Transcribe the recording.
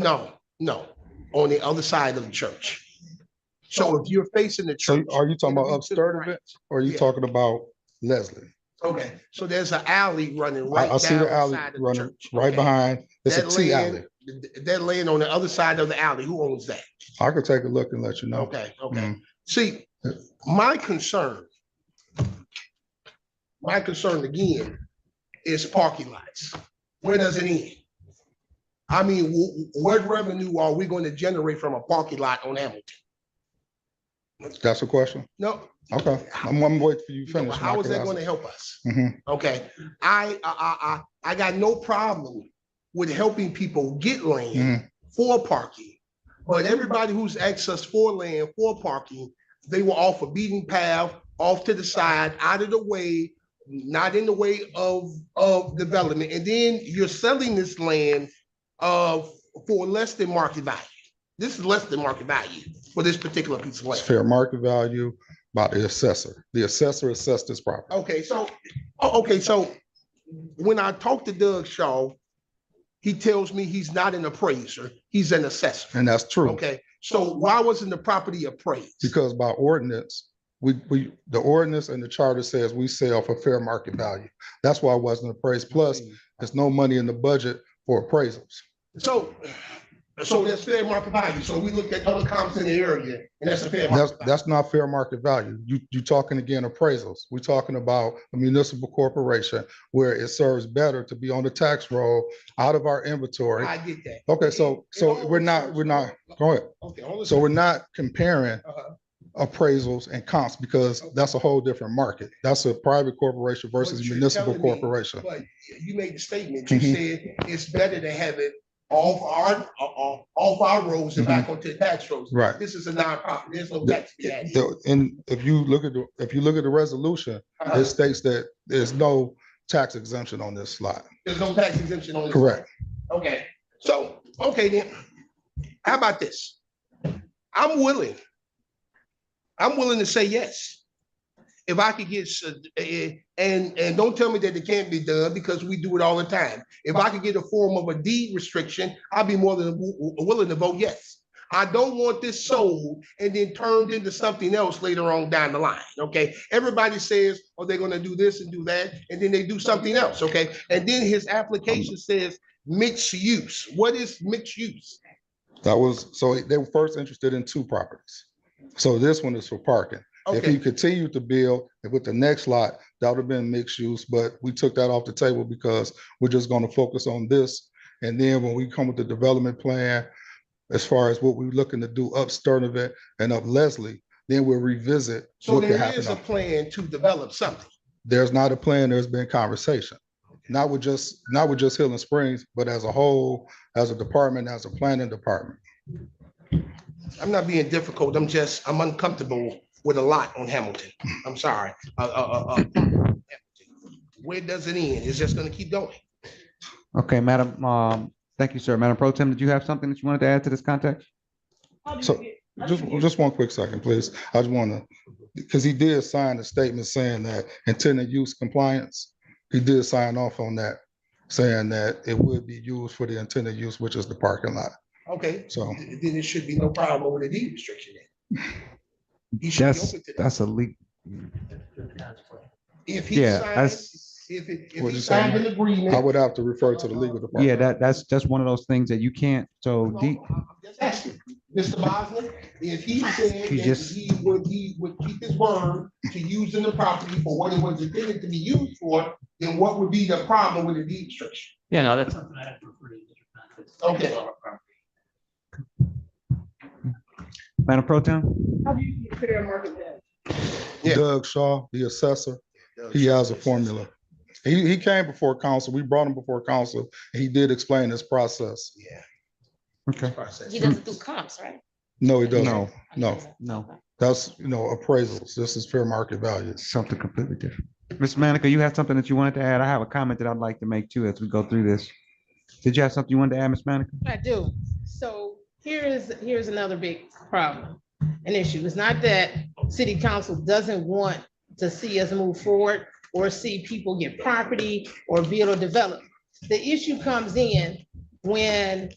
No, no, on the other side of the church. So if you're facing the So church. are you talking it'll about be to the upstart of right. it, or are you Yeah. talking about Leslie? Okay, so there's an alley running I, right I down see the alley side of the running church. right okay? behind, it's a That T land- alley. th- That land on the other side of the alley, who owns that? I could take a look and let you know. Okay, okay. Mm. See, my concern, my concern again is parking lots. Where does it end? I mean, wh- wh- what revenue are we going to generate from a parking lot on Hamilton? That's a question? No, Okay, I'm, I'm waiting for you you to know, finish. but and how I is can that going ask- to help us? Mhm. Okay, I, I, I, I I got no problem with helping people get land Mhm. for parking. But everybody who's asked us for land for parking, they were off a beaten path, off to the side, out of the way, not in the way of, of development. And then you're selling this land uh, for less than market value. This is less than market value for this particular piece of It's land. fair market value by the assessor. The assessor assessed this property. Okay, so, oh, okay, so when I talk to Doug Shaw, he tells me he's not an appraiser, he's an assessor. And that's true, Okay, so why wasn't the property appraised? because by ordinance, we, we, the ordinance and the charter says we sell for fair market value. That's why it wasn't appraised. Plus, there's no money in the budget for appraisals. So, so that's fair market value. So we looked at other comps in the area and that's a fair That's, market value. that's not fair market value. You, you talking again appraisals. We're talking about a municipal corporation where it serves better to be on the tax roll out of our inventory. I get that. Okay, so, so we're not, we're not, go ahead. Okay, hold on. So we're not comparing Uh-huh. appraisals and comps because that's a whole different market. That's a private corporation versus What you're municipal telling me- corporation. But you made the statement, you Mhm. said it's better to have it off our, off, off our roads and back onto the tax roads. Mm-hmm. Right. This is a nonprofit, there's no The- tax. to be had. The- And if you look at, the if you look at the resolution, Uh-huh. it states that there's no tax exemption on this slide. There's no tax exemption on this. Correct. Okay, so, okay then, how about this? I'm willing. I'm willing to say yes. If I could get, s- eh, and, and don't tell me that it can't be done because we do it all the time. If I could get a form of a deed restriction, I'd be more than w- w- willing to vote yes. I don't want this sold and then turned into something else later on down the line, okay? Everybody says, oh, they're gonna do this and do that, and then they do something else, okay? And then his application says mixed use. What is mixed use? That was, so they were first interested in two properties. So this one is for parking. If he Okay, continued to build with the next lot, that would have been mixed use, but we took that off the table because we're just going to focus on this. And then when we come with the development plan, as far as what we're looking to do up Sturdivant and up Leslie, then we'll revisit so what could there is happen. a on- plan to develop something. There's not a plan, there's been conversation. Not with just, not with just Hill and Springs, but as a whole, as a department, as a planning department. I'm not being difficult, I'm just, I'm uncomfortable with a lot on Hamilton. I'm sorry. Uh, uh, uh, uh, Where does it end? It's just gonna keep going. Okay, Madam, um, thank you, sir. Madam Pro Tem, did you have something that you wanted to add to this context? So- Just, just one quick second, please. I just want to, because he did sign a statement saying that intended use compliance. He did sign off on that, saying that it would be used for the intended use, which is the parking lot. Okay, So th- then it should be no problem with a deed restriction. then. He should be That's, open to that. that's a leak. If he Yeah, signs, that's, if it, if What'd he you say? signed an I agreement. would have to refer to the legal department. yeah, that, that's, that's one of those things that you can't, so No, D, no, I'm just asking. Mr. Bosler, if he said He that just- he would, he would keep his word to using the property for what it was intended to be used for, then what would be the problem with the deed restriction? Yeah, no, that's something I have to refer to. in different contexts. Okay. Madam Pro Tem? How do you compare market value? yeah. Doug Shaw, the assessor, he has a formula. He, he came before council. We brought him before council. He did explain his process. Yeah. Okay, process. He doesn't do comps, right? No, he doesn't. No. No, no, that's, you know, appraisals. This is fair market values. something completely different. Ms. Manica, you had something that you wanted to add? I have a comment that I'd like to make too as we go through this. Did you have something you wanted to add, Ms. Manica? I do. So here is, here's another big problem, an issue. It's not that city council doesn't want to see us move forward or see people get property or build or develop. The issue comes in when